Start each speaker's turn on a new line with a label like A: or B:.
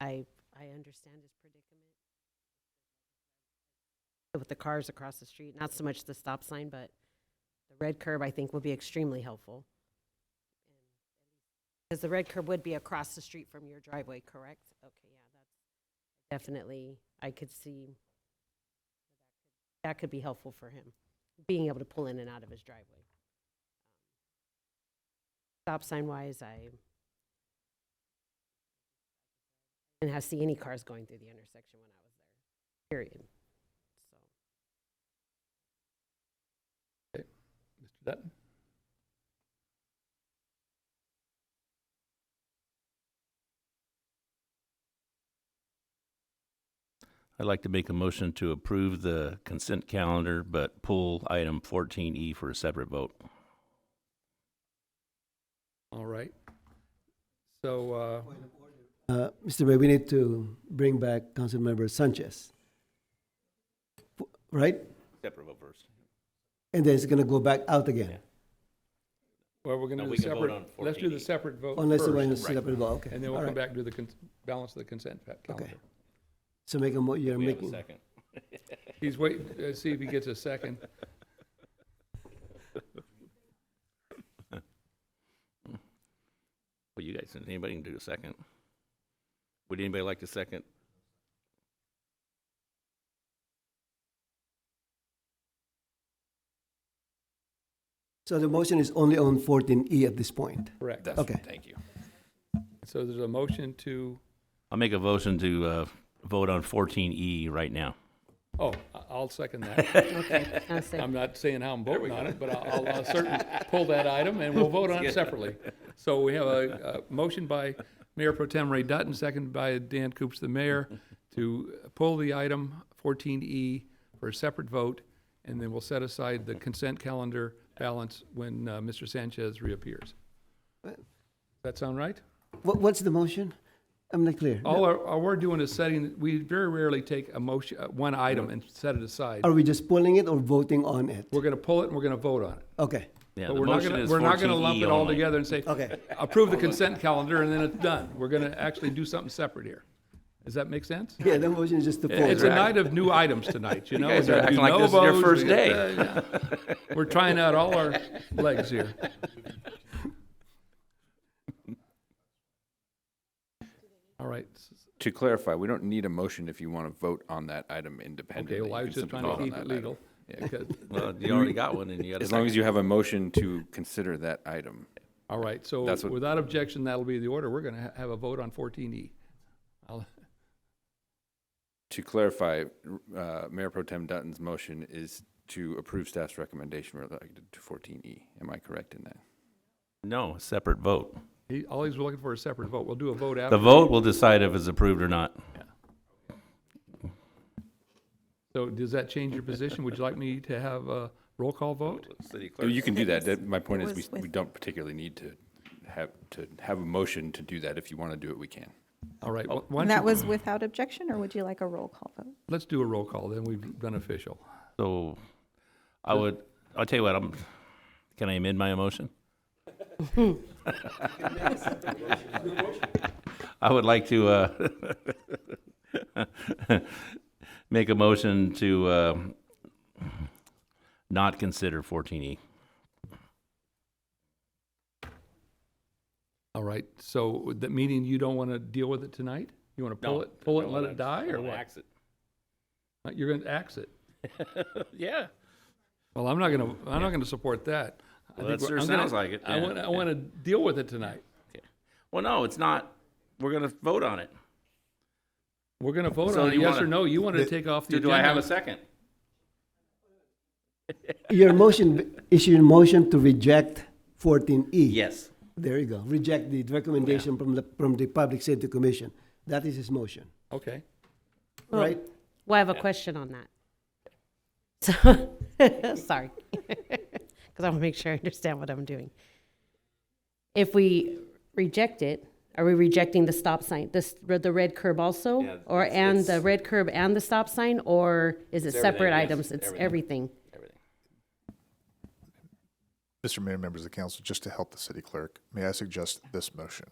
A: I, I understand his predicament. With the cars across the street, not so much the stop sign, but the red curb, I think, will be extremely helpful. Because the red curb would be across the street from your driveway, correct? Okay, yeah, that's definitely, I could see that could be helpful for him, being able to pull in and out of his driveway. Um, Stop sign wise, I didn't have, see any cars going through the intersection when I was there, period. So,
B: Mr. Dutton?
C: I'd like to make a motion to approve the consent calendar, but pull item fourteen E for a separate vote.
B: All right. So, uh,
D: Uh, Mr. Ray, we need to bring back Councilmember Sanchez. F- Right?
C: Separate vote first.
D: And then it's gonna go back out again,
B: well, we're
C: No,
B: gonna do
C: we
B: the
C: can vote
B: separate,
C: on
B: let's do the
C: 14E.
B: separate vote
D: unless the one is
B: first.
D: set up and go, okay.
B: And then
D: all
B: we'll come
D: right.
B: back to the cons- balance of the consent fa- calendar.
D: So make a mo, you're
C: We have a
D: making,
C: second.
B: He's waiting, uh, see if he gets a second.
C: Well, you guys, anybody can do a second. Would anybody like to second?
D: so the motion is only on fourteen E at this point.
B: Correct.
D: Okay.
C: Thank you.
B: So there's a motion to,
C: I'll make a motion to, uh, vote on fourteen E right now.
B: oh, I- I'll second that.
A: okay, I'll say-
B: I'm not saying how I'm voting on it, but I'll, I'll certainly pull that item and we'll vote on it separately. So we have a, a motion by Mayor Pro Tem Ray Dutton, seconded by Dan Coops, the mayor, to pull the item fourteen E for a separate vote, and then we'll set aside the consent calendar balance when, uh, Mr. Sanchez reappears. Does that sound right?
D: What, what's the motion? I'm not clear.
B: All, our- all we're doing is setting, we very rarely take a motion, uh, one item and set it aside.
D: Are we just pulling it or voting on it?
B: We're gonna pull it and we're gonna vote on it.
D: Okay,
C: Yeah,
B: But
C: the
B: we're not
C: motion
B: gonna,
C: is
B: we're not gonna
C: 14E
B: lump it all
C: only.
B: together and say,
D: okay.
B: approve the consent calendar and then it's done. We're gonna actually do something separate here. Does that make sense?
D: Yeah, the motion is just to pull
B: It's
D: it.
B: a night of new items tonight, you know?
C: guys
B: We
C: are
B: got
C: acting
B: de
C: like this is your
B: novos,
C: first
B: we got-
C: day.
B: uh, yeah. We're trying out all our legs here. All right,
E: To clarify, we don't need a motion if you want to vote on that item independently.
B: okay, well, I
E: You
B: was
E: can
B: just
E: simply
B: trying to
E: vote on
B: keep
E: that
B: it
E: item.
B: legal. because-
C: Well, you already got one and you got a
E: As long as
C: second.
E: you have a motion to consider that item.
B: All right, so
E: That's what-
B: without objection, that'll be the order. We're gonna ha- have a vote on fourteen E.
E: To clarify, uh, Mayor Pro Tem Dutton's motion is to approve staff's recommendation related to 14E. Am I correct in that?
C: No, separate vote.
B: All he's looking for is a separate vote. We'll do a vote after.
C: The vote will decide if it's approved or not.
B: So does that change your position? Would you like me to have a roll call vote?
C: City clerk.
E: You can do that. That- My point
F: it
E: is,
F: was
E: we- we
F: with-
E: don't particularly need to have, to have a motion to do that. If you want to do it, we can.
B: All right, why don't
F: And that
B: you-
F: was without objection, or would you like a roll call vote?
B: let's do a roll call, then we've done official.
C: So I would, I'll tell you what, I'm, can I amend my motion? I would like to, uh, make a motion to, uh, not consider fourteen E.
B: All right, so that meaning you don't want to deal with it tonight? You want to pull it, pull it and let it die, or what? Uh, You're going to axe it?
C: Yeah.
B: Well, I'm not going to, I'm not going to support that. I
C: Well,
B: think
C: that
B: we're-
C: sure
B: I'm gonna-
C: sounds like it,
B: I
C: yeah,
B: want, I
C: yeah.
B: want to deal with it tonight.
C: Well, no, it's not. We're gonna vote on it.
B: We're going to vote
C: So
B: on it,
C: you
B: yes
C: wanna-
B: or no? You want to take off the
C: Do
B: agenda?
C: do I have a second?
D: Your motion is your motion to reject fourteen E?
C: Yes.
D: There you go. Reject the recommendation from the, from the Public Safety Commission. That is his motion,
B: Okay,
A: Well,
D: right?
A: Well, I have a question on that. So, sorry, because I want to make sure I understand what I'm doing. If we reject it, are we rejecting the stop sign, this, the red curb also?
C: Yeah,
A: Or,
C: it's-
A: and the
C: it's-
A: red curb and the stop sign, or is it
C: It's
A: separate
C: everything, yes,
A: items? It's
C: everything.
A: everything.
C: Everything.
G: Mr. Mayor, members of the council, just to help the city clerk, may I suggest this motion?